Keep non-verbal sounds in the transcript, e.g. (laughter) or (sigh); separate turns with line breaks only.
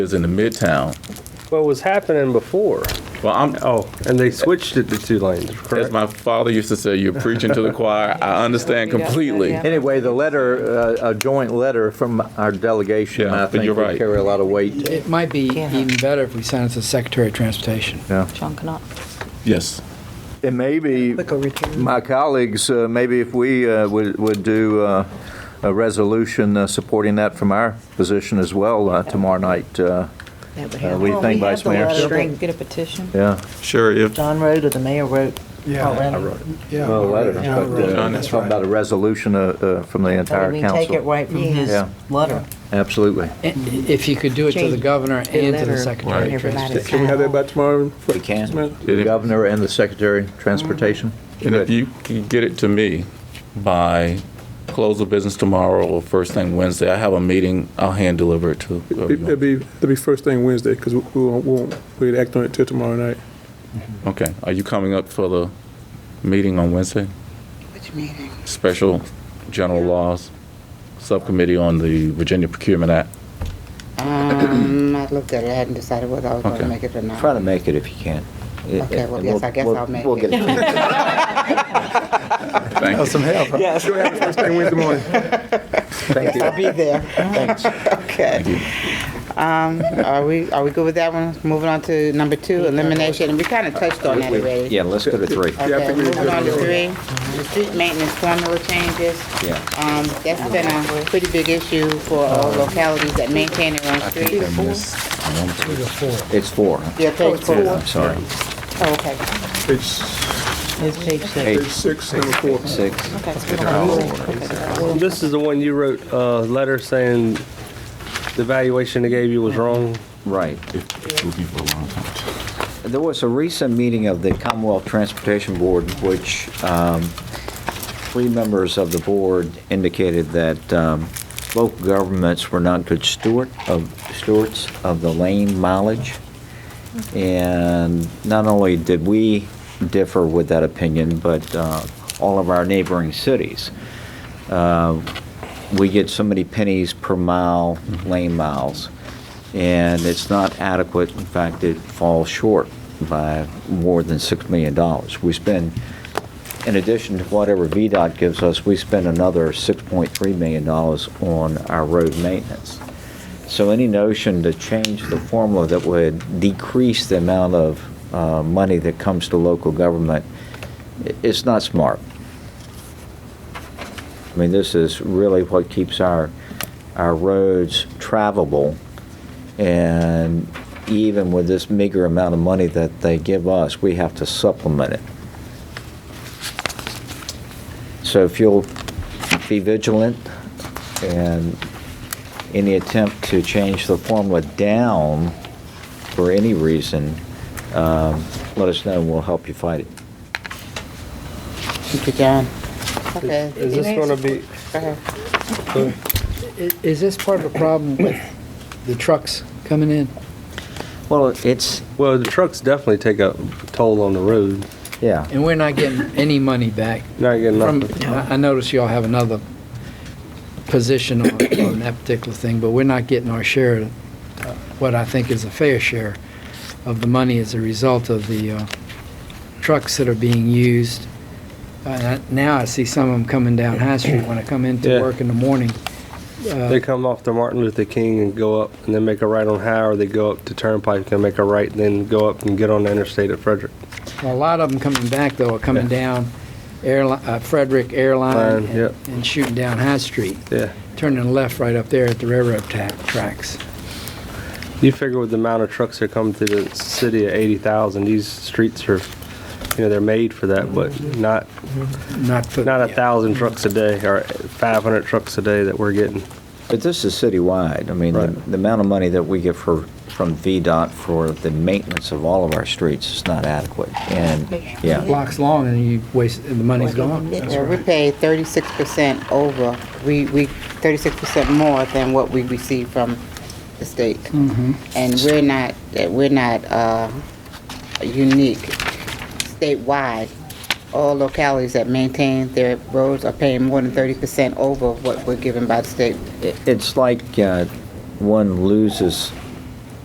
is in the midtown.
What was happening before?
Well, I'm,
Oh, and they switched it to two lanes, correct?
as my father used to say, you're preaching to the choir. I understand completely.
Yeah.
Anyway, the letter, uh, a joint letter from our delegation,
Yeah,
I
but you're
think would
right.
carry a lot of weight.
It might be
Yeah.
even better if we send it to the Secretary of Transportation.
Yeah.
John Knopf.
Yes.
And maybe, my colleagues, uh, maybe if we uh, would would do uh, a resolution uh, supporting that from our position as well uh, tomorrow night. uh,
That would
Uh,
help.
we- think, Vice Mayor?
Get a petition.
Yeah,
Sure, if,
John wrote or the mayor wrote already?
Yeah.
Well, letter,
Yeah,
but,
right.
uh,
John,
That's
talking
right.
about a resolution uh, uh, from the
So
entire
we take it
council.
right from his
Yeah.
letter.
Absolutely.
I- If you could do it to the
Change
governor
the
and to
letter
the Secretary
and
of
everybody
Transportation.
Can we have that by tomorrow? We
can. The
if-
governor and the secretary of transportation.
and if
Good.
you can get it to me by close of business tomorrow or first thing Wednesday, I have a meeting, I'll hand deliver it to
It'd
everyone.
be, it'd be first thing Wednesday, because we we won't, we won't, we'd act on it till tomorrow night.
Okay, are you coming up for the meeting on Wednesday?
Which meeting?
Special General Laws Subcommittee on the Virginia Procurement Act?
Um, I looked at it, I hadn't decided whether I was
Okay.
gonna make it or not.
Try to make it if you can.
Okay, well, yes, I guess I'll make
We'll get
it. (laughs)
it.
Thank you.
First thing Wednesday morning.
Thank you.
I'll be there.
Thanks.
Okay. Um, are we, are we good with that one? Moving on to number two, elimination, and we kind of touched on that already.
Yeah, let's go to three.
Okay, moving on to three, the street maintenance formula changes.
Yeah.
Um, that's been a pretty big issue for all localities that maintain their own streets.
It's four. huh?
Yeah, page four.
I'm sorry.
Oh, okay.
Page
His page six.
Eight,
six, number four.
six.
Okay.
This is the one you wrote a letter saying the valuation they gave you was wrong.
Right. There was a recent meeting of the Commonwealth Transportation Board, which um, three members of the board indicated that um, local governments were not good steward of, stewards of the lane mileage. And not only did we differ with that opinion, but uh, all of our neighboring cities. Uh, We get so many pennies per mile, lane miles, and it's not adequate. In fact, it falls short by more than $6 million. We spend, in addition to whatever VDOT gives us, we spend another $6.3 million on our road maintenance. So any notion to change the formula that would decrease the amount of uh, money that comes to local government, i- it's not smart. I mean, this is really what keeps our, our roads travelable. And even with this meager amount of money that they give us, we have to supplement it. So if you'll be vigilant and any attempt to change the formula down for any reason, um, let us know and we'll help you fight it.
Thank you, John. Okay.
Is this gonna be,
Go ahead.
I- Is this part of the problem with the trucks coming in?
Well, it's,
well, the trucks definitely take a toll on the road.
yeah.
And we're not getting any money back.
Not getting
From,
nothing.
I I notice y'all have another position on, on that particular thing, but we're not getting our share, uh, what I think is a fair share of the money as a result of the uh, trucks that are being used. Uh, Now I see some of them coming down High Street when I come into
Yeah.
work in the morning. Uh,
They come off the Martin Luther King and go up and then make a right on High, or they go up to Turnpike and make a right, then go up and get on the interstate at Frederick.
Well, a lot of them coming back, though, are coming down Airli- uh, Frederick Airline
Line,
and-
yep.
and shooting down High Street,
Yeah.
turning left right up there at the railroad ta- tracks.
You figure with the amount of trucks that come to the city at 80,000, these streets are, you know, they're made for that, but not,
Not for.
not a thousand trucks a day or 500 trucks a day that we're getting.
But this is citywide. I mean, the
Right.
the amount of money that we get for, from VDOT for the maintenance of all of our streets is not adequate. And, yeah,
Blocks long and you waste, and the money's gone.
Yeah, we pay thirty-six percent over, we, we, thirty-six percent more than what we receive from the state. And we're not, eh, we're not, uh, unique statewide. All localities that maintain their roads are paying more than thirty percent over what we're given by the state.
It- it's like uh, one loses